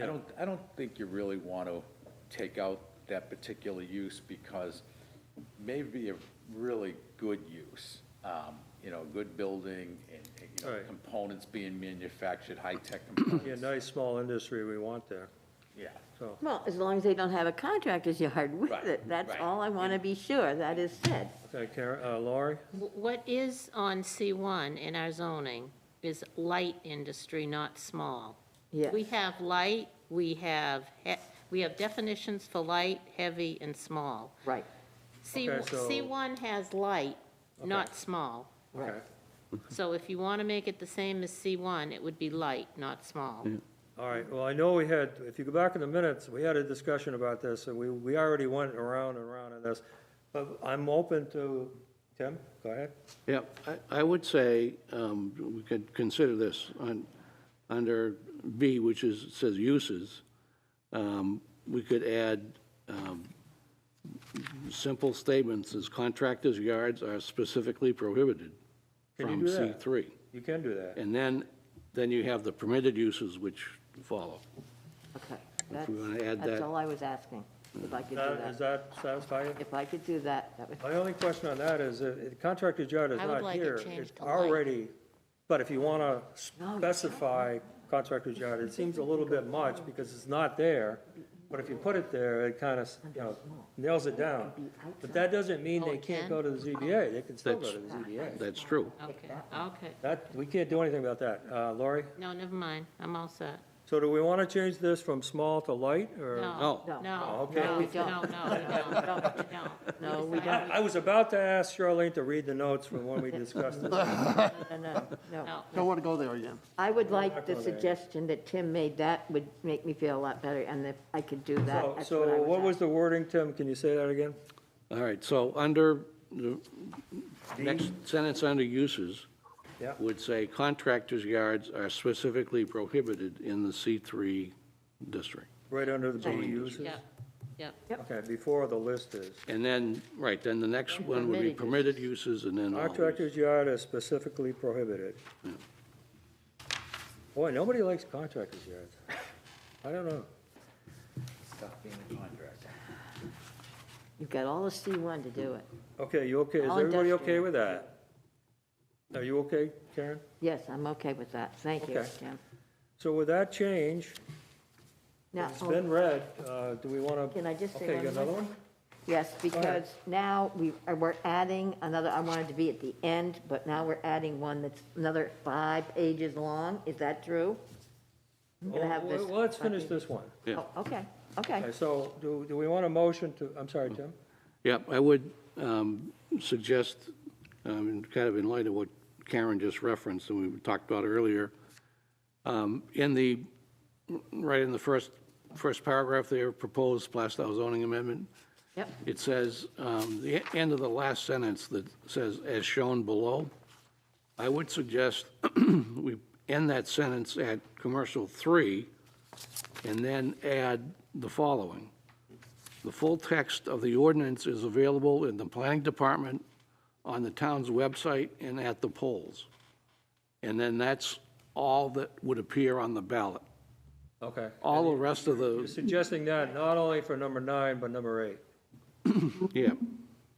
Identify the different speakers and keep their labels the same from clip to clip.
Speaker 1: I don't, I don't think you really want to take out that particular use because maybe a really good use, um, you know, good building and, you know,
Speaker 2: Right.
Speaker 1: components being manufactured, high-tech
Speaker 2: Yeah,
Speaker 1: components.
Speaker 2: nice, small industry we want there,
Speaker 1: Yeah,
Speaker 2: so.
Speaker 3: Well, as long as they don't have a contractor's yard with
Speaker 1: Right,
Speaker 3: it, that's
Speaker 1: right.
Speaker 3: all I want to be sure that is said.
Speaker 2: Okay, Karen, uh, Laurie?
Speaker 4: Wh- What is on C1 in our zoning is light industry, not small.
Speaker 3: Yes.
Speaker 4: We have light, we have, he- we have definitions for light, heavy, and small.
Speaker 3: Right,
Speaker 4: C-
Speaker 2: Okay, so-
Speaker 4: C1 has light, not small.
Speaker 2: Okay.
Speaker 4: So if you want to make it the same as C1, it would be light, not small.
Speaker 2: All right, well, I know we had, if you go back in the minutes, we had a discussion about this, and we, we already went around and around on this. But I'm open to, Tim, go ahead.
Speaker 5: Yeah, I, I would say, um, we could consider this on, under B, which is, says uses. Um, we could add, um, simple statements as contractors' yards are specifically prohibited
Speaker 2: Can you
Speaker 5: from
Speaker 2: do
Speaker 5: C
Speaker 2: that?
Speaker 5: three.
Speaker 2: You can do that.
Speaker 5: And then, then you have the permitted uses which follow.
Speaker 3: okay.
Speaker 5: If we
Speaker 3: That's-
Speaker 5: wanna add
Speaker 3: That's
Speaker 5: that-
Speaker 3: all I was asking, if I could do
Speaker 2: Uh, That- Does
Speaker 3: that.
Speaker 2: that satisfy you?
Speaker 3: If I could do that, that would,
Speaker 2: My only question on that is, if the contractor's yard is
Speaker 4: I would
Speaker 2: not
Speaker 4: like it
Speaker 2: here.
Speaker 4: changed
Speaker 2: It's
Speaker 4: to light.
Speaker 2: already, but if you want to
Speaker 3: No, you
Speaker 2: specify contractor's yard, it seems a little bit much because it's not there. But if you put it there, it kind of, you know, nails it down. But that doesn't mean
Speaker 4: Oh,
Speaker 2: they
Speaker 4: it
Speaker 2: can't
Speaker 4: can?
Speaker 2: go to the ZBA. They can still go
Speaker 5: That's-
Speaker 2: to the ZBA.
Speaker 5: That's true.
Speaker 4: Okay, okay.
Speaker 2: That, we can't do anything about that. Uh, Lori,
Speaker 4: No, never mind, I'm all set.
Speaker 2: so do we want to change this from small to light or?
Speaker 3: No.
Speaker 4: No, no,
Speaker 2: Oh,
Speaker 4: no,
Speaker 2: okay.
Speaker 4: no,
Speaker 3: We
Speaker 4: no,
Speaker 3: don't.
Speaker 4: no, we don't, we don't.
Speaker 3: no, we
Speaker 2: I,
Speaker 3: don't,
Speaker 2: I was about to ask Charlene to read the notes from when we discussed it.
Speaker 3: no, no, no.
Speaker 4: No.
Speaker 6: Don't want to go there again.
Speaker 3: I would like the
Speaker 2: Not gonna-
Speaker 3: suggestion that Tim made, that would make me feel a lot better, and if I could do that,
Speaker 2: So-
Speaker 3: that's what I
Speaker 2: So what was
Speaker 3: was
Speaker 2: the wording, Tim? Can you say that again?
Speaker 5: All right, so under, the next sentence under uses
Speaker 2: Yeah.
Speaker 5: would say contractors' yards are specifically prohibited in the C3 district.
Speaker 2: Right under the B uses?
Speaker 4: Yep, yep.
Speaker 2: Okay, before the list is.
Speaker 5: And then, right, then the next one would be
Speaker 4: Permitted
Speaker 5: permitted uses and then all uses.
Speaker 2: Contractor's yard is specifically prohibited. Boy, nobody likes contractor's yards. I don't know.
Speaker 1: stop being a contractor.
Speaker 3: You've got all the C1 to do it.
Speaker 2: Okay, you okay? Is
Speaker 3: All
Speaker 2: everybody okay
Speaker 3: industrial.
Speaker 2: with that? Are you okay, Karen?
Speaker 3: Yes, I'm okay with that, thank you,
Speaker 2: Okay.
Speaker 3: Tim.
Speaker 2: So with that change,
Speaker 3: Now,
Speaker 2: it's
Speaker 3: oh,
Speaker 2: been read, uh, do we want to?
Speaker 3: Can I just say
Speaker 2: Okay, you
Speaker 3: one
Speaker 2: got another
Speaker 3: more
Speaker 2: one?
Speaker 3: Yes,
Speaker 2: ahead.
Speaker 3: because now we, uh, we're adding another, I wanted to be at the end, but now we're adding one that's another five pages long, is that true? I'm gonna have
Speaker 2: Oh,
Speaker 3: this-
Speaker 2: Well, let's finish this one.
Speaker 5: Yeah.
Speaker 3: Oh, Okay, okay.
Speaker 2: Okay, so do, do we want a motion to, I'm sorry, Tim?
Speaker 5: Yeah, I would um, suggest, um, and kind of in light of what Karen just referenced and we talked about earlier, um, in the, right in the first, first paragraph there, proposed Plastow zoning amendment,
Speaker 3: Yep,
Speaker 5: it says, um, the end of the last sentence that says, as shown below, I would suggest we end that sentence at commercial three, and then add the following. The full text of the ordinance is available in the planning department, on the town's website, and at the polls. And then that's all that would appear on the ballot.
Speaker 2: Okay.
Speaker 5: All the rest of
Speaker 2: You're
Speaker 5: the,
Speaker 2: Suggesting that not only for number nine, but number eight.
Speaker 5: yeah,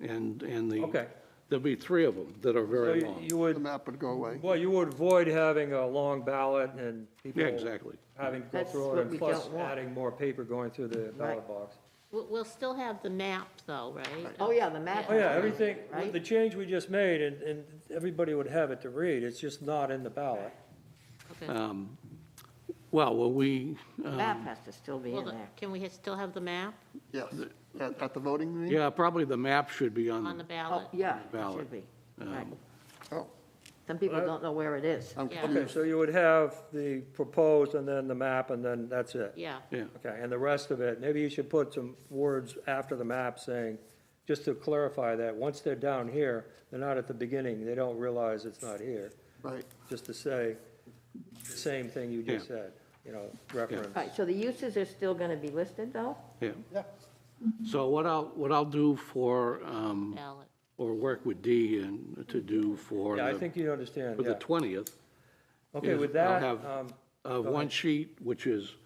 Speaker 5: and, and the.
Speaker 2: Okay.
Speaker 5: There'll be three of them that are
Speaker 2: So
Speaker 5: very
Speaker 2: you-
Speaker 5: long.
Speaker 2: you
Speaker 6: The
Speaker 2: would,
Speaker 6: map would go away.
Speaker 2: well, you would avoid having a long ballot and people.
Speaker 5: Yeah, exactly.
Speaker 2: Having to go
Speaker 3: That's
Speaker 2: through
Speaker 3: what
Speaker 2: it, and
Speaker 3: we
Speaker 2: plus
Speaker 3: don't want.
Speaker 2: adding more paper going through the ballot
Speaker 3: Right.
Speaker 2: box.
Speaker 4: We'll, we'll still have the map though, right?
Speaker 3: oh yeah, the map.
Speaker 2: Oh, yeah, everything,
Speaker 3: Right?
Speaker 2: the change we just made, and, and everybody would have it to read, it's just not in the ballot.
Speaker 4: Okay.
Speaker 5: Um, Well, will we,
Speaker 3: The Map has to still be
Speaker 4: Well,
Speaker 3: in
Speaker 4: the-
Speaker 3: there.
Speaker 4: Can we still have the map
Speaker 6: Yes, at, at the voting meeting?
Speaker 5: yeah, probably the map should be
Speaker 4: on
Speaker 5: on,
Speaker 4: the
Speaker 5: the-
Speaker 3: Oh,
Speaker 4: ballot?
Speaker 3: yeah, it
Speaker 5: Ballot.
Speaker 3: should be, right.
Speaker 6: Oh,
Speaker 3: Some people don't know where it is.
Speaker 6: I'm
Speaker 4: Yeah.
Speaker 2: Okay,
Speaker 6: confused.
Speaker 2: so you would have the proposed, and then the map, and then that's it.
Speaker 4: Yeah,
Speaker 5: yeah.
Speaker 2: Okay, and the rest of it, maybe you should put some words after the map saying, just to clarify that, once they're down here, they're not at the beginning, they don't realize it's not here.
Speaker 6: Right,
Speaker 2: just to say the same thing you just
Speaker 5: Yeah.
Speaker 2: said, you know, reference.
Speaker 3: All right, so the uses are still gonna be listed, though?
Speaker 5: Yeah. So what I'll, what I'll do for, um,
Speaker 4: ballot.
Speaker 5: or work with D and to do for
Speaker 2: Yeah, I
Speaker 5: the,
Speaker 2: think you understand,
Speaker 5: for the
Speaker 2: yeah.
Speaker 5: 20th.
Speaker 2: Okay,
Speaker 5: is
Speaker 2: with
Speaker 5: I'll
Speaker 2: that,
Speaker 5: have,
Speaker 2: um,
Speaker 5: uh, one sheet, which is